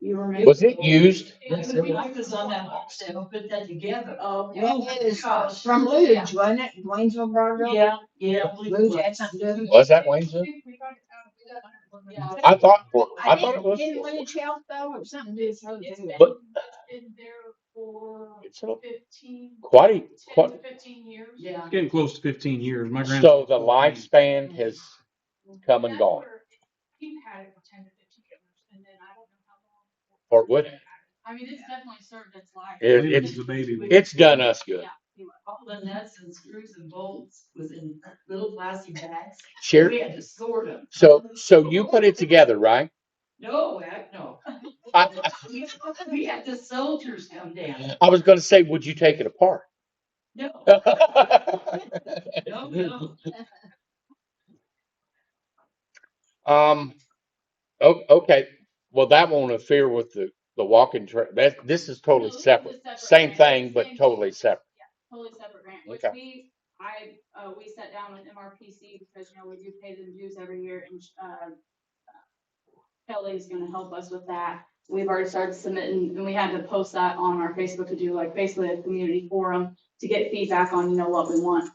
You remember? Was it used? Yes, it was. I was on that box, they put that together. Oh, Yeah. it is from Luge, wasn't it? Waynesville brought it up? Yeah, yeah. Luge had something to do with it. Was that Waynesville? I thought, I thought it didn't- Didn't was. Luge help though, or something to do with it? But- Been there for It's a- fifteen, Quite a, ten to quite, fifteen years. Yeah. Getting close to fifteen years. My grand. so the lifespan has come and That's gone. where He had it for ten to fifteen years, and then I don't know how long. Or would it? I mean, it's definitely served its life. It, it's, The baby. it's done us good. All the nuts and screws and bolts was in little plastic bags. Sherry, We had to sort them. so, so you put it together, right? No, heck, no. I, We we had the soldiers come down. I was gonna say, would you take it apart? No, no, no. Um, oh, Um, okay, well, that won't interfere with the, the walking trail, that, this is totally No, this is a separate. separate Same grant. thing, but Same totally thing. separate. Totally separate grant, which Okay. we, I, uh, we sat down with MRPC because, you know, we do pay them dues every year and, uh, Kelly's gonna help us with that. We've already started submitting, and we had to post that on our Facebook to do like basically a community forum to get feedback on, you know, what we want,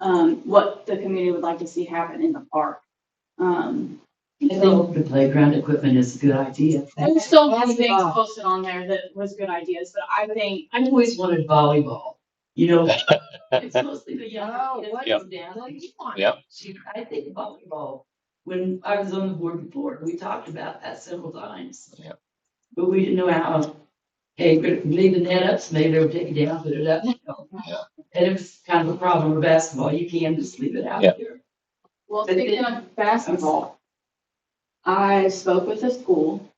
um, what the community would like to see happen in the park. Um, I think the playground equipment is a good idea. there's so many things posted on there that was good ideas, but I think, I always wanted volleyball, you know? It's mostly the Oh, young what kids come down. What do you want? Yeah. She, I think volleyball, when I was on the board before, we talked about that several times. Yeah. But we didn't know how, hey, we're leaving that up, so maybe they'll take it down, put it up. you know. Yeah. And it was kind of a problem with basketball, you can just leave it out Yeah. there. Well, But it- speaking of basketball, I spoke with the school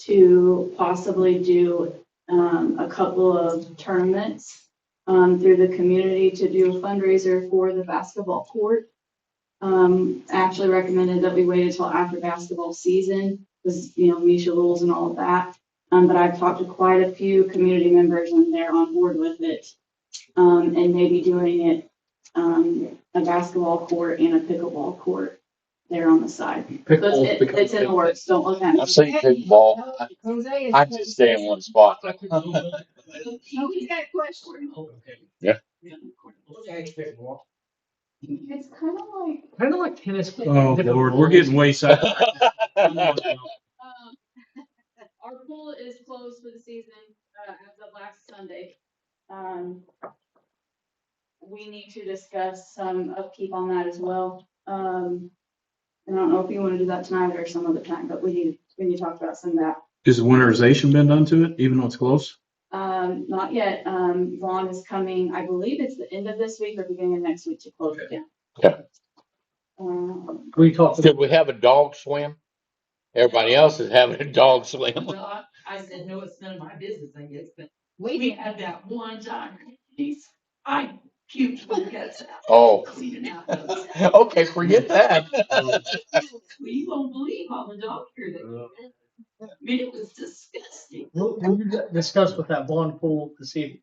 to possibly do um, a couple of tournaments um, through the community to do a fundraiser for the basketball court. Um, Ashley recommended that we wait until after basketball season, because, you know, Misha rules and all of that. Um, but I've talked to quite a few community members and they're on board with it. Um, and maybe doing it, um, a basketball court and a pickleball court there on the side. So It's, it- it's in the works, don't look at I've it. seen pickleball, I- Jose is- I just stay in one spot. Oh, he's got a question. Yeah. It's kind of like, Kind of like tennis. Oh, Lord, we're getting way south. um, our pool is closed for the season, uh, as of last Sunday. Um, we need to discuss some upkeep on that as well. Um, I don't know if you want to do that tonight or some other time, but we need, we need to talk about some of that. Is the winterization been done to it, even though it's close? Um, not yet. Um, Vaughn is coming, I believe it's the end of this week or beginning of next week to close it down. Okay. Um, We talked. Did we have a dog swim? Everybody else is having a dog swim. Well, I- I said, no, it's none of my business, I guess, but we We, had that one time, geez, I puked my guts out. Oh, cleaning out those. okay, forget that. We won't believe all the dog hair that, I mean, it was disgusting. We'll, we'll discuss with that bond pool to see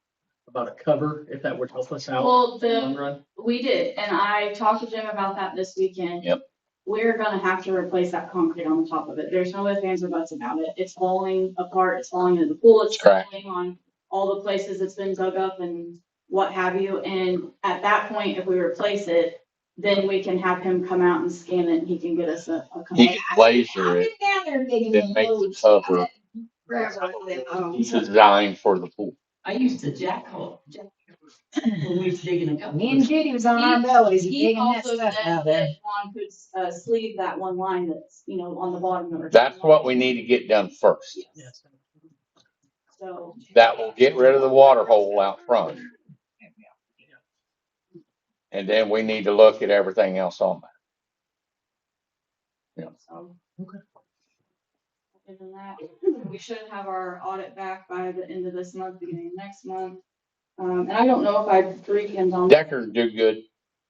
about a cover, if that would help us out. Well, in the the long run. We did, and I talked to Jim about that this weekend. Yep. We're gonna have to replace that concrete on the top of it. There's no ifs, ands, or buts about it. It's falling apart, it's falling into the pool, it's It's cracked. falling on all the places it's been dug up and what have you. And at that point, if we replace it, then we can have him come out and scan it and he can get us a. a He company. can I've laser been it, down there digging then in make the Luge. cover. Railroad, oh. It's designed for the pool. I used to jackal, jackal when we was digging a couple. Me and Judy was on our bellies He digging that also said stuff out there. that Ron could, uh, sleeve that one line that's, you know, on the bottom of it. That's what we need to get done first. Yes. So. That will get rid of the water hole out front. And then we need to look at everything else on that. So. Okay. Other than that, we should have our audit back by the end of this month, beginning of next month. Um, and I don't know if I three cans on. Decker do good.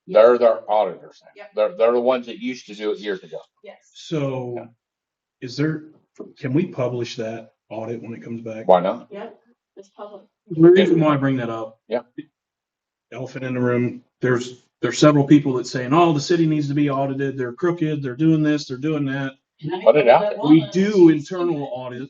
They're their auditors. now. Yep. They're, they're the ones that used to do it years ago. Yes. So is there, can we publish that audit when it comes back? Why not? Yep, it's public. The reason why I bring that up. Yeah. Elephant in the room, there's, there's several people that saying, oh, the city needs to be audited, they're crooked, they're doing this, they're doing that. And I Put it know out that there. We woman, do she's- internal audits.